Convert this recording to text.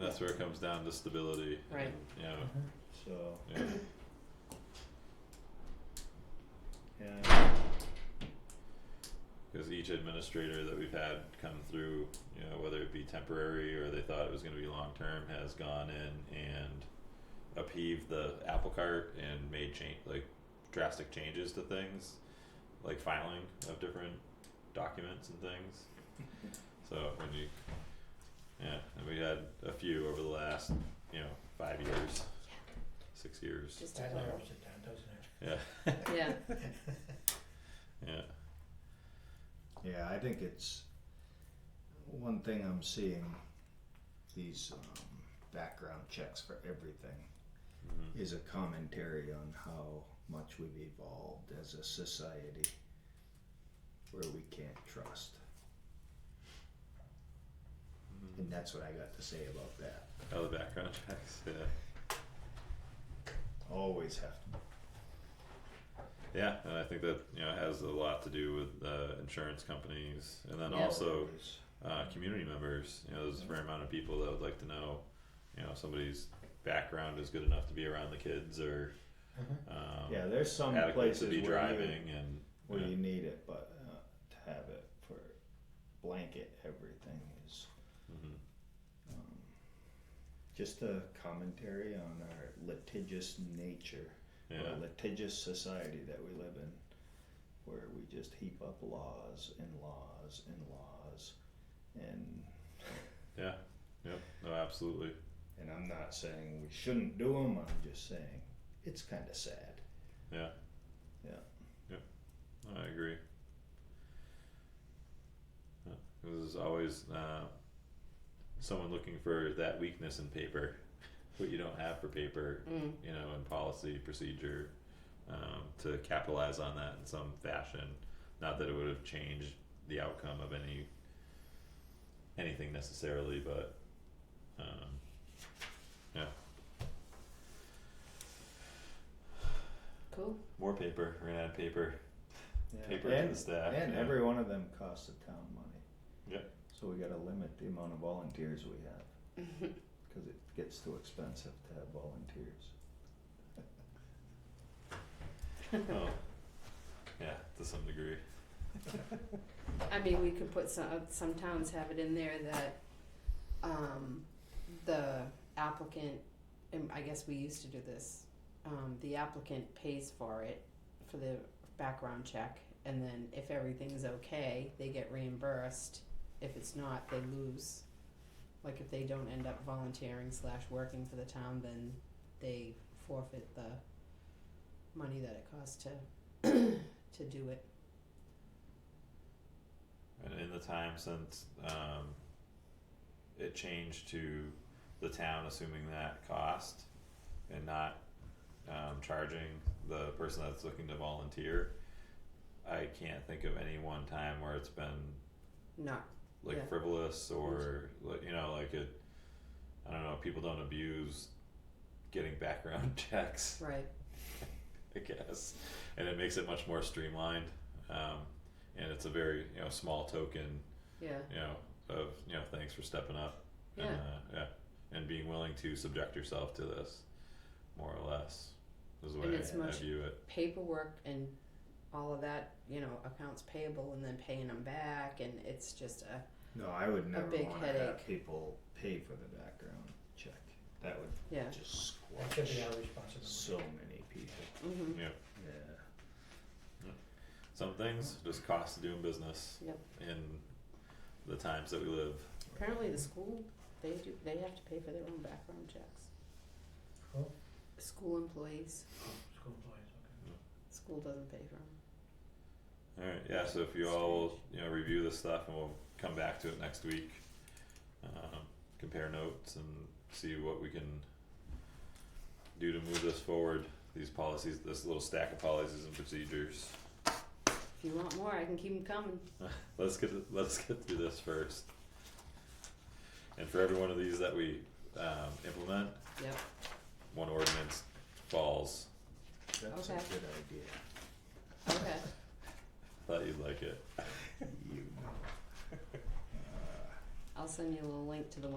that's where it comes down to stability. Right. and, You know, So, yeah, yeah, cause each administrator that we've had come through, you know, whether it be temporary or they thought it was gonna be long-term, has gone in and upheaved the apple cart and made change, like drastic changes to things, like filing of different documents and things. So when you, yeah, and we had a few over the last, you know, five years, six years. Just That a little. narrows it down, doesn't it? Yeah, Yeah, yeah. yeah, I think it's one thing I'm seeing these um, background checks for everything Mhm. is a commentary on how much we've evolved as a society where we can't trust. Mm-hmm. And that's what I got to say about that. Oh, the background checks. Yeah, Always have to. yeah, and I think that you know has a lot to do with uh, insurance companies, and then Yeah. also always. uh, community members. You know, there's a fair amount of people that would like to know, you know, if somebody's background is good enough to be around the kids or um, Mm-hmm. Yeah, there's some adequate places to be where you driving, and where Yeah. you need it, but uh, to have it for blanket everything is mhm, um, just a commentary on our litigious nature, yeah, our litigious society that we live in, where we just heap up laws and laws and laws, and yeah, yep, no, absolutely. and I'm not saying we shouldn't do them. I'm just saying it's kind of sad. Yeah. Yeah. Yep. I agree. Yeah, 'cause There's always uh, someone looking for that weakness in paper, what you don't have for paper, mm, you know, in policy procedure, um, to capitalize on that in some fashion. Not that it would have changed the outcome of any anything necessarily, but um, yeah, cool. more paper. We're gonna add paper, Yeah. paper and to the staff. And yeah. every one of them costs the town money. Yep. So we gotta limit the amount of volunteers we have, cause it gets too expensive to have volunteers. Oh, yeah, to some degree. I mean, we could put some, uh, some towns have it in there that, um, the applicant, and I guess we used to do this. Um, the applicant pays for it, for the background check, and then if everything's okay, they get reimbursed. If it's not, they lose. Like if they don't end up volunteering slash working for the town, then they forfeit the money that it costs to, to do it. And in the time since um, it changed to the town assuming that cost and not um, charging the person that's looking to volunteer, I can't think of any one time where it's been Not like Yeah. frivolous or like you know like it. I don't know. People don't abuse getting background checks. right. I guess, and it makes it much more streamlined. Um, and it's a very you know small token, Yeah. you know, of you know thanks for stepping up, Yeah. and uh, yeah, and being willing to subject yourself to this, more or less, is the And way it's I, I much- view it. paperwork and all of that, you know, accounts payable and then paying them back, and it's just a No, I would never big wanna have headache. people pay for the background check, that would yeah. just That should be squash our responsibility. so many people, Mm-hmm. yeah. Some things just cost doing business. Yep. In the times that we live. Apparently, the school they do they have to pay for their own background checks. Cool. School employees, School employees, okay. school doesn't pay for them. All right. Yeah. So if you all will, you know, review this stuff and we'll come back to it next week. Um, compare notes and see what we can do to move this forward. These policies, this little stack of policies and procedures. If you want more, I can keep them coming. Let's get let's get through this first. And for every one of these that we um, implement, Yep. one ordinance falls. That's a Okay. good idea. Okay. Thought you'd like it. You know. Uh, I'll send you a little link to the